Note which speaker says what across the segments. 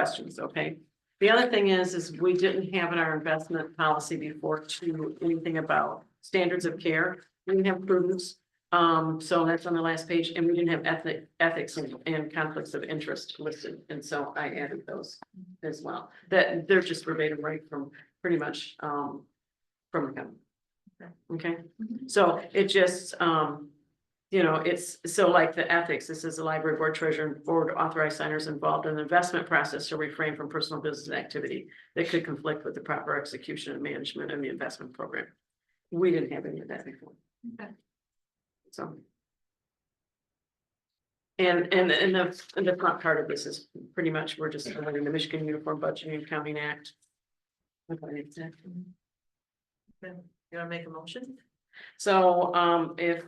Speaker 1: questions, okay? The other thing is, is we didn't have in our investment policy before to anything about standards of care. We didn't have prudence, um, so that's on the last page, and we didn't have ethic, ethics and- and conflicts of interest listed, and so I added those as well. That, they're just verbatim right from, pretty much, um, from him. Okay, so it just, um, you know, it's, so like the ethics, this is the library board treasurer and board authorized signers involved in the investment process to refrain from personal business activity that could conflict with the proper execution and management of the investment program. We didn't have any of that before.
Speaker 2: Okay.
Speaker 1: So. And, and, and the, and the front part of this is pretty much, we're just following the Michigan Uniform Budgeting and Accounting Act.
Speaker 2: You wanna make a motion?
Speaker 1: So, um, if,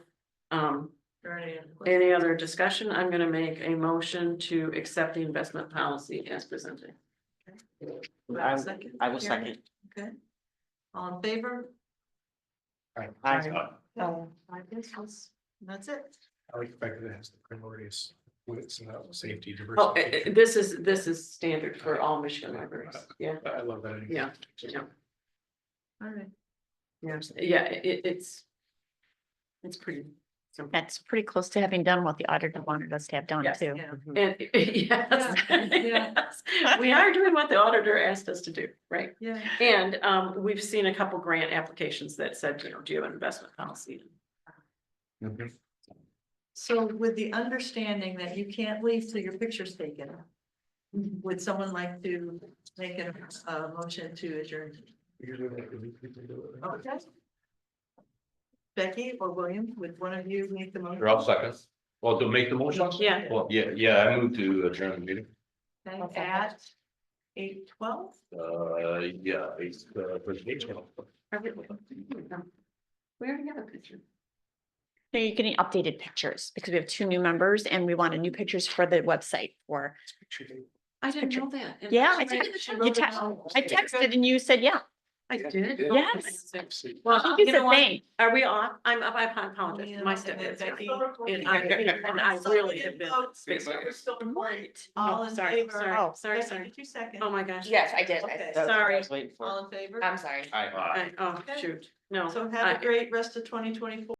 Speaker 1: um,
Speaker 2: Or any other question?
Speaker 1: any other discussion, I'm gonna make a motion to accept the investment policy as presented.
Speaker 2: Do I
Speaker 3: I
Speaker 2: have a
Speaker 3: will-
Speaker 2: second?
Speaker 3: I will
Speaker 2: Yeah.
Speaker 3: second.
Speaker 2: Okay. All in favor?
Speaker 3: Aye.
Speaker 1: Aye.
Speaker 2: Oh. I guess that's, that's it.
Speaker 4: I like the fact that it has the priorities, it's about safety,
Speaker 1: Oh, eh, eh,
Speaker 4: diversity.
Speaker 1: this is, this is standard for all Michigan libraries, yeah,
Speaker 4: I love that. idea.
Speaker 1: Yeah, yeah,
Speaker 2: All right.
Speaker 1: yeah, yeah, it, it's. It's pretty simple,
Speaker 5: That's pretty close to having done what the auditor wanted us to have done
Speaker 1: Yes.
Speaker 5: too.
Speaker 2: Yeah.
Speaker 1: and, yes,
Speaker 2: Yeah.
Speaker 1: yes, we are doing what the auditor asked us to do, right?
Speaker 2: Yeah.
Speaker 1: And um, we've seen a couple grant applications that said, you know, do you have an investment policy?
Speaker 4: Mhm.
Speaker 2: So with the understanding that you can't leave till your picture's taken, would someone like to make a, a motion to adjourn?
Speaker 4: Usually like, we people do it.
Speaker 2: Okay. Becky or William, would one of you make the motion?
Speaker 6: Or I'll second. Well, to make the motion?
Speaker 1: Yeah,
Speaker 6: Well, yeah, yeah, I moved to adjourn the meeting.
Speaker 2: Okay, At eight twelve?
Speaker 6: Uh, yeah, it's, uh, presentation.
Speaker 1: we already have a picture.
Speaker 5: So you're getting updated pictures because we have two new members and we wanted new pictures for the website for.
Speaker 1: I didn't
Speaker 5: Picture.
Speaker 1: know that. And
Speaker 5: Yeah, I
Speaker 1: she
Speaker 5: did.
Speaker 1: wrote- she
Speaker 5: You
Speaker 1: wrote it
Speaker 5: text-
Speaker 1: down.
Speaker 5: I texted and you said, yeah.
Speaker 1: I did.
Speaker 5: Yes.
Speaker 4: See.
Speaker 1: Well,
Speaker 5: You
Speaker 1: you
Speaker 5: said,
Speaker 1: know what?
Speaker 5: thank.
Speaker 1: Are we off? I'm, I apologize. My step is. And I, and I really have been. spaced out.
Speaker 2: All
Speaker 1: Oh,
Speaker 2: in
Speaker 1: sorry,
Speaker 2: favor?
Speaker 1: Sorry, sorry,
Speaker 2: Becky,
Speaker 1: sorry.
Speaker 2: Did you second?
Speaker 1: Oh, my Oh gosh.
Speaker 7: Yes, I did. I-
Speaker 2: Okay.
Speaker 7: that's what I
Speaker 1: Sorry.
Speaker 7: was waiting for.
Speaker 2: All in favor?
Speaker 7: I'm sorry.
Speaker 6: Aye.
Speaker 1: I- Oh,
Speaker 2: Okay.
Speaker 1: shoot. No.
Speaker 2: So have
Speaker 1: I-
Speaker 2: a great rest of twenty twenty-four.